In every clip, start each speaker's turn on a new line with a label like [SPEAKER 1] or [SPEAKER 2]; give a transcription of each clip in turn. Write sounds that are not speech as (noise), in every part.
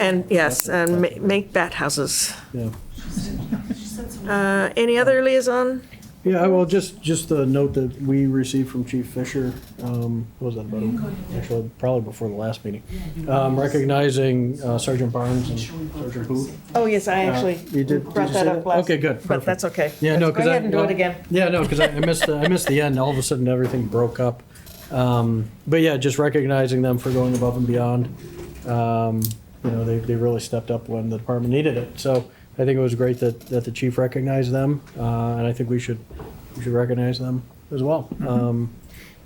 [SPEAKER 1] And, yes, and ma- make bat houses.
[SPEAKER 2] Yeah.
[SPEAKER 1] Uh, Any other liaison?
[SPEAKER 2] Yeah, well, just, just the note that we received from Chief Fisher, um, what was that about, a- actually, probably before the last meeting, um, recognizing uh, Sergeant Barnes and Sergeant Booth.
[SPEAKER 1] Oh, yes, I actually
[SPEAKER 2] Uh, you did- did
[SPEAKER 1] brought
[SPEAKER 2] you
[SPEAKER 1] that
[SPEAKER 2] say
[SPEAKER 1] up
[SPEAKER 2] that?
[SPEAKER 1] last.
[SPEAKER 2] Okay, good,
[SPEAKER 1] But that's okay.
[SPEAKER 2] Yeah, no,
[SPEAKER 1] Let's
[SPEAKER 2] because
[SPEAKER 1] Go
[SPEAKER 2] I.
[SPEAKER 1] ahead and do
[SPEAKER 2] well,
[SPEAKER 1] it again.
[SPEAKER 2] Yeah, no, because I I missed, the- I missed the end, all of a sudden, everything broke up. Um, But yeah, just recognizing them for going above and beyond. Um, You know, they, they really stepped up when the department needed it. So I think it was great that, that the chief recognized them, uh, and I think we should, we should recognize them as well. Um,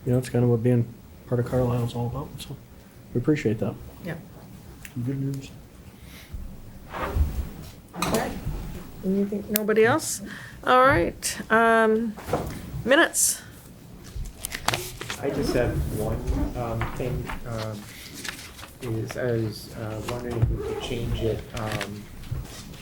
[SPEAKER 2] You know, it's kind of what being part of Carlisle is all about, so we appreciate that.
[SPEAKER 1] Yeah.
[SPEAKER 2] Good news.
[SPEAKER 1] Anything- Nobody else? All right. um, Minutes.
[SPEAKER 3] I just have one um, thing, um, is I was uh, wondering if we could change it, um,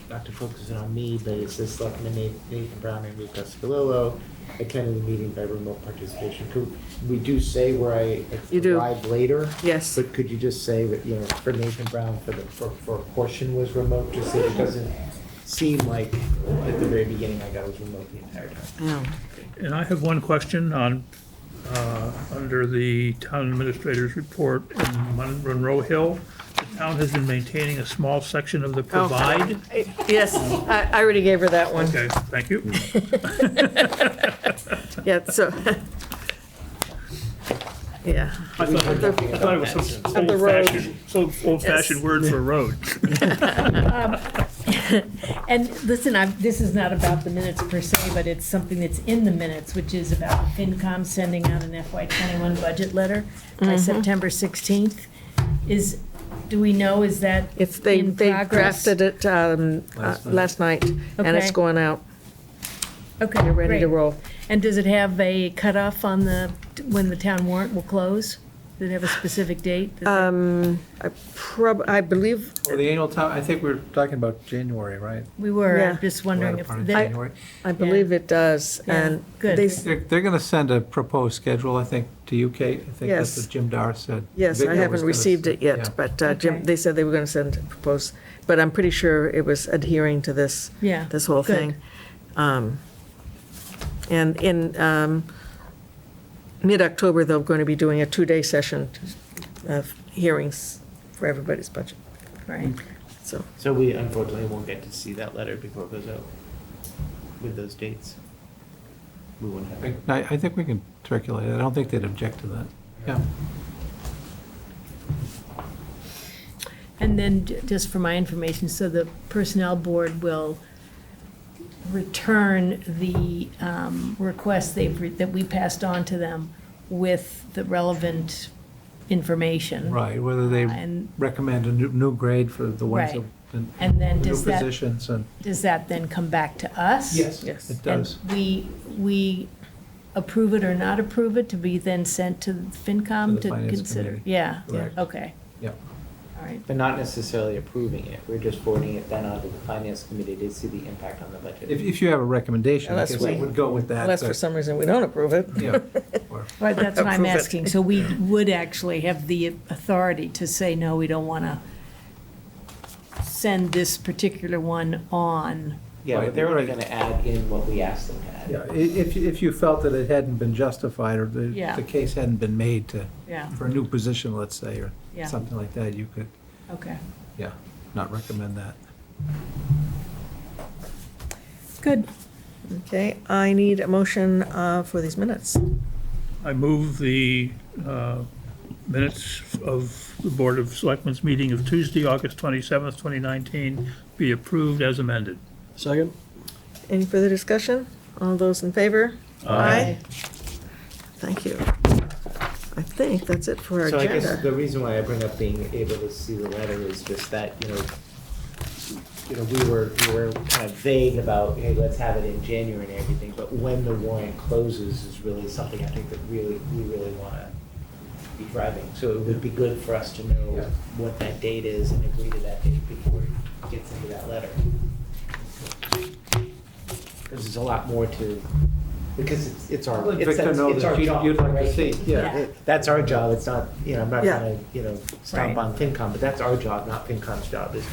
[SPEAKER 3] not to focus on me, but it says Selectmen Na- Nathan Brown and Rick Coscalillo attended the meeting by remote participation. Could, we do say where I
[SPEAKER 1] You do.
[SPEAKER 3] arrived later,
[SPEAKER 1] Yes.
[SPEAKER 3] but could you just say that, you know, for Nathan Brown, for the, for, for a portion was remote, just so it doesn't seem like at the very beginning I got was remote the entire time.
[SPEAKER 1] Oh.
[SPEAKER 4] And I have one question on, uh, under the town administrator's report in Mon- Monroe Hill. The town has been maintaining a small section of the
[SPEAKER 1] Oh.
[SPEAKER 4] provide.
[SPEAKER 1] Yes, I I already gave her that one.
[SPEAKER 4] Okay, thank you.
[SPEAKER 1] Yeah, so. Yeah.
[SPEAKER 4] I thought I thought it was some
[SPEAKER 1] the road.
[SPEAKER 4] old-fashioned, some old-fashioned word for road.
[SPEAKER 5] And listen, i this is not about the minutes per se, but it's something that's in the minutes, which is about FinCom sending out an FY twenty-one budget letter
[SPEAKER 1] Mm-hmm.
[SPEAKER 5] by September sixteenth. Is, do we know, is that
[SPEAKER 1] It's, they
[SPEAKER 5] in
[SPEAKER 1] they
[SPEAKER 5] progress?
[SPEAKER 1] drafted it um, uh, last night, and it's
[SPEAKER 5] Okay.
[SPEAKER 1] going out.
[SPEAKER 5] Okay,
[SPEAKER 1] They're ready to
[SPEAKER 5] great.
[SPEAKER 1] roll.
[SPEAKER 5] And does it have a cutoff on the, when the town warrant will close? Does it have a specific date? that they-
[SPEAKER 1] Um, Prob, I believe,
[SPEAKER 6] Well, the annual town, I think we we're talking about January, right?
[SPEAKER 5] We were,
[SPEAKER 1] yeah.
[SPEAKER 5] I'm just wondering if,
[SPEAKER 6] Part of
[SPEAKER 5] they-
[SPEAKER 6] January.
[SPEAKER 1] I believe it does,
[SPEAKER 5] Yeah,
[SPEAKER 1] and
[SPEAKER 5] good.
[SPEAKER 1] they, s-
[SPEAKER 6] They're, they're gonna send a proposed schedule, I think, to you, Kate. I think
[SPEAKER 1] Yes.
[SPEAKER 6] that's what Jim Dar said.
[SPEAKER 1] yes, I
[SPEAKER 6] Victor was
[SPEAKER 1] haven't
[SPEAKER 6] gonna
[SPEAKER 1] received
[SPEAKER 6] s-
[SPEAKER 1] it yet,
[SPEAKER 6] yeah.
[SPEAKER 1] but uh, Jim,
[SPEAKER 5] Okay.
[SPEAKER 1] they said they were going to send, propose, but I'm pretty sure it was adhering to this,
[SPEAKER 5] yeah.
[SPEAKER 1] this whole
[SPEAKER 5] good.
[SPEAKER 1] thing. Um, And in um, mid-October, they're going to be doing a two-day session of hearings for everybody's budget,
[SPEAKER 5] Right.
[SPEAKER 1] so.
[SPEAKER 3] So we unfortunately won't get to see that letter before it goes out with those dates. We won't have it.
[SPEAKER 6] I, I think we can circulate it. I don't think they'd object to that. Yeah.
[SPEAKER 5] And then, j- just for my information, so the Personnel Board will return the um, request they've, re- that we passed on to them with the relevant information.
[SPEAKER 6] Right, whether they
[SPEAKER 5] And,
[SPEAKER 6] recommend a new, new grade for the ones
[SPEAKER 5] Right.
[SPEAKER 6] that- and
[SPEAKER 5] and then
[SPEAKER 6] new
[SPEAKER 5] does that,
[SPEAKER 6] positions and.
[SPEAKER 5] does that then come back to us?
[SPEAKER 1] Yes.
[SPEAKER 6] It does.
[SPEAKER 5] And we, we approve it or not approve it to be then sent to
[SPEAKER 6] To
[SPEAKER 5] FinCom
[SPEAKER 6] the
[SPEAKER 5] to
[SPEAKER 6] Finance
[SPEAKER 5] consider?
[SPEAKER 6] Committee.
[SPEAKER 5] Yeah,
[SPEAKER 6] Correct.
[SPEAKER 5] okay.
[SPEAKER 6] Yeah.
[SPEAKER 5] All right,
[SPEAKER 3] But not necessarily approving it, we're just forwarding it then onto the finance committee to see the impact on the budget.
[SPEAKER 6] If, if you have a recommendation, I
[SPEAKER 1] Unless
[SPEAKER 6] guess I
[SPEAKER 1] we-
[SPEAKER 6] would go with that.
[SPEAKER 1] Unless for
[SPEAKER 6] but-
[SPEAKER 1] some reason we don't approve it. (laughs)
[SPEAKER 6] Yeah. Or-
[SPEAKER 5] Right, that's what I'm
[SPEAKER 1] Approve it.
[SPEAKER 5] asking. So we would actually have the authority to say, no, we don't want to send this particular one on.
[SPEAKER 3] Yeah, but
[SPEAKER 6] Right,
[SPEAKER 3] they're only
[SPEAKER 6] right.
[SPEAKER 3] gonna add in what we asked them to add.
[SPEAKER 6] Yeah, i- if, you- if you felt that it hadn't been justified or the,
[SPEAKER 5] Yeah.
[SPEAKER 6] the case hadn't been made to,
[SPEAKER 5] Yeah,
[SPEAKER 6] for a new position, let's say, or
[SPEAKER 5] Yeah.
[SPEAKER 6] something like that, you could,
[SPEAKER 5] okay.
[SPEAKER 6] yeah, not recommend that.
[SPEAKER 5] Good.
[SPEAKER 1] Okay, I need a motion uh, for these minutes.
[SPEAKER 4] I move the uh, minutes of the Board of Selectmen's meeting of Tuesday, August 27th, 2019, be approved as amended.
[SPEAKER 2] Second?
[SPEAKER 1] Any further discussion? All those in favor? Aye. Thank you. I think that's it for our
[SPEAKER 3] So I guess
[SPEAKER 1] agenda.
[SPEAKER 3] the reason why I bring up being able to see the letter is just that, you know, you know, we were, we were kind of vague about, hey, let's have it in January and everything, but when the warrant closes is really something I think that really, we really wanna be driving. So it would be good for us to know what that date is and agree to that date before it gets into that letter. Because there's a lot more to because it's, it's our,
[SPEAKER 6] Let
[SPEAKER 3] it's,
[SPEAKER 6] Victor
[SPEAKER 3] that's-
[SPEAKER 6] know
[SPEAKER 3] it's
[SPEAKER 6] that
[SPEAKER 3] our
[SPEAKER 6] you'd-
[SPEAKER 3] job.
[SPEAKER 6] you'd like to
[SPEAKER 3] right?
[SPEAKER 6] see, yeah.
[SPEAKER 3] It- That's our job, it's not, you know, I'm not
[SPEAKER 1] Yeah.
[SPEAKER 3] gonna, you know,
[SPEAKER 5] Right.
[SPEAKER 3] stomp on FinCom, but that's our job, not FinCom's job, is